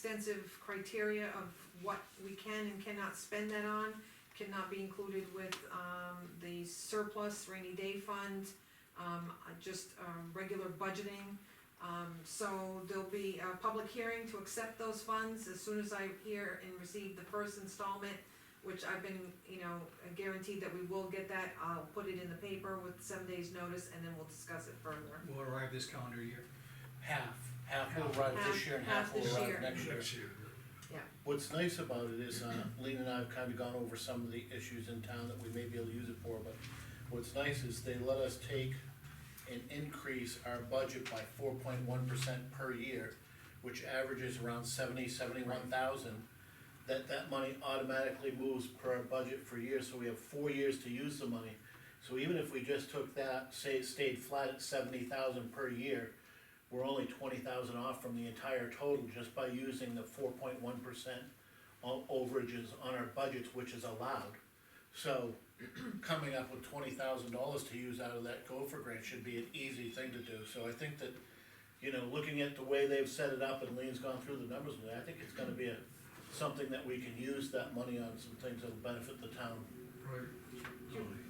extensive criteria of what we can and cannot spend that on. Cannot be included with, um, the surplus rainy day fund, um, uh, just, um, regular budgeting. Um, so there'll be a public hearing to accept those funds as soon as I hear and receive the first installment, which I've been, you know, guaranteed that we will get that, I'll put it in the paper with seven days' notice, and then we'll discuss it further. will arrive this calendar year. Half, half will arrive this year and half Half will this arrive year. next year. What's nice about it is, uh, Lean and I have kinda gone over some of the issues in town that we may be able to use it for, but what's nice is they let us take and increase our budget by four point one percent per year, which averages around seventy, seventy-one thousand. That, that money automatically moves per our budget for years, so we have four years to use the money. So even if we just took that, say, it stayed flat at seventy thousand per year, we're only twenty thousand off from the entire total just by using the four point one percent overages on our budgets, which is allowed. So coming up with twenty thousand dollars to use out of that gopher grant should be an easy thing to do, so I think that, you know, looking at the way they've set it up and Lean's gone through the numbers, with it, I think it's gonna be a, something that we can use that money on, some things that'll benefit the town.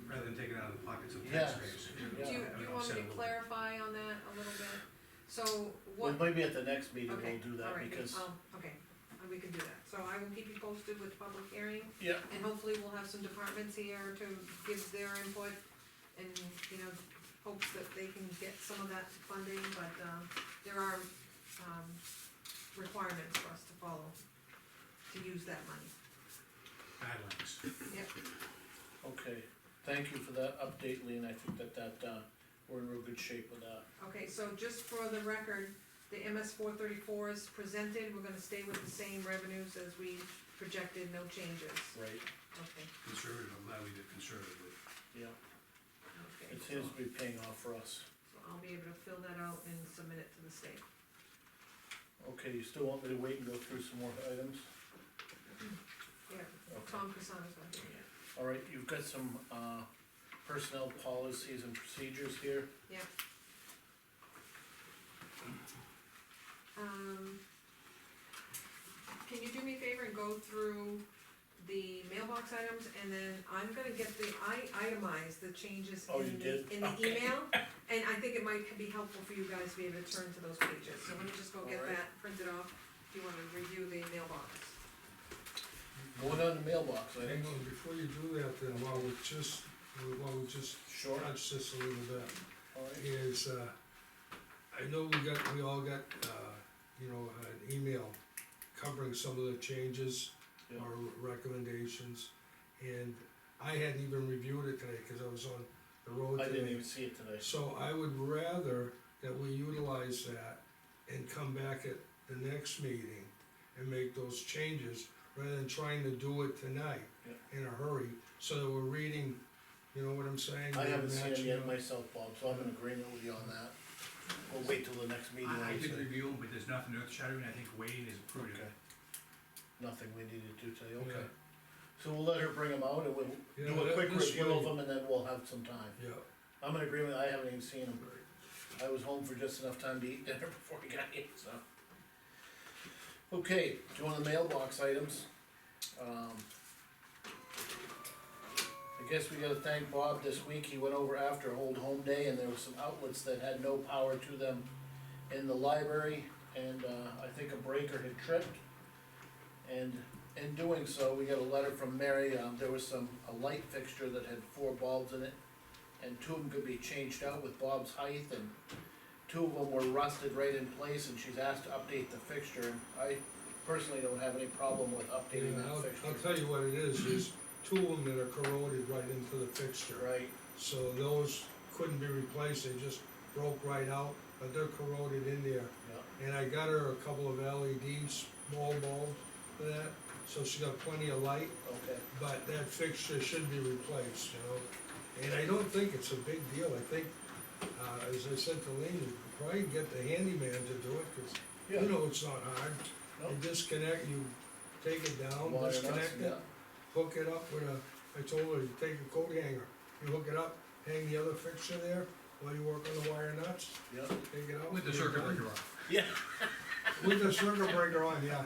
Rather than take it out of the pockets of Yes. taxpayers. Do you, Yeah. do you want me to Yeah. clarify on that a little bit? So Well, what? maybe at the next meeting Okay, we'll do all that, right, because, um, Okay, and we can do that, so I will keep you posted with the public hearing, yeah, and hopefully we'll have some departments here to give their input, and, you know, hopes that they can get some of that funding, but, um, there are, um, requirements for us to follow, to use that money. Guidelines. okay, thank you for that update, Lean, I think that that, uh, we're in real good shape with that. Okay, so just for the record, the MS four thirty-four is presented, we're gonna stay with the same revenues as we projected, no changes, Right. okay, Conservative, I'm glad we did conservative. Yeah, okay. it seems to be paying off for us. So I'll be able to fill that out and submit it to the state. Okay, you still want me to wait and go through some more items? Yeah, Okay. Tom Casano's gonna do it. All right, you've got some, uh, personnel policies and procedures here. Um, can you do me a favor and go through the mailbox items, and then I'm gonna get the, I itemized the changes Oh, you in the, did? in the Okay. email. And I think it might be helpful for you guys to be able to turn to those pages, so let me just go get Alright. that printed off, if you wanna review the mailbox. Going on the mailbox, I Hang think, on, before you do that, then, while we just, while we just sure, touch this a little bit, all right, is, uh, I know we got, we all got, uh, you know, an email covering some of the changes Yeah. or recommendations, and I hadn't even reviewed it today, cause I was on the road I today. didn't even see it today. So I would rather that we utilize that and come back at the next meeting and make those changes, rather than trying to do it tonight in a hurry, so that we're reading, you know what I'm saying? I haven't seen it Matching yet up. myself, Bob, so I'm in agreement with you on that. We'll wait till the next meeting, I, I I did say. review them, but there's nothing earth shattering, I think Wayne is prudent. Okay. Nothing we need to do today, okay. Yeah. So we'll let her bring them out and we'll Yeah, do a that- quick this review of way- them and then we'll have some time. Yeah, I'm in agreement, I haven't even seen him. I was home for just enough time to eat dinner before he got here, so. Okay, do you want the mailbox items? Um. I guess we gotta thank Bob this week, he went over after Old Home Day and there were some outlets that had no power to them in the library and, uh, I think a breaker had tripped. And in doing so, we got a letter from Mary, um, there was some, a light fixture that had four bulbs in it and two of them could be changed out with Bob's height, and two of them were rusted right in place, and she's asked to update the fixture, and I personally don't have any problem with updating yeah, I'll, that I'll fixture. tell you what it is, is two of them that are corroded right into the fixture. Right, So those couldn't be replaced, they just broke right out, but they're corroded in there. yeah, And I got her a couple of LEDs, small bulbs for that, so she got plenty of light, okay, but that fixture should be replaced, you know? And I don't think it's a big deal, I think, uh, as I said to Lean, you could probably get the handyman to do it, cause yeah, you know it's not hard. Nope. You disconnect, you take it down, Wire nuts, disconnect it, yeah. hook it up with a, I told her, you take a coat hanger, you hook it up, hang the other fixture there, while you work on the wire nuts, yeah. take it out. With the you're circuit done. breaker off. With the circuit breaker on, yeah.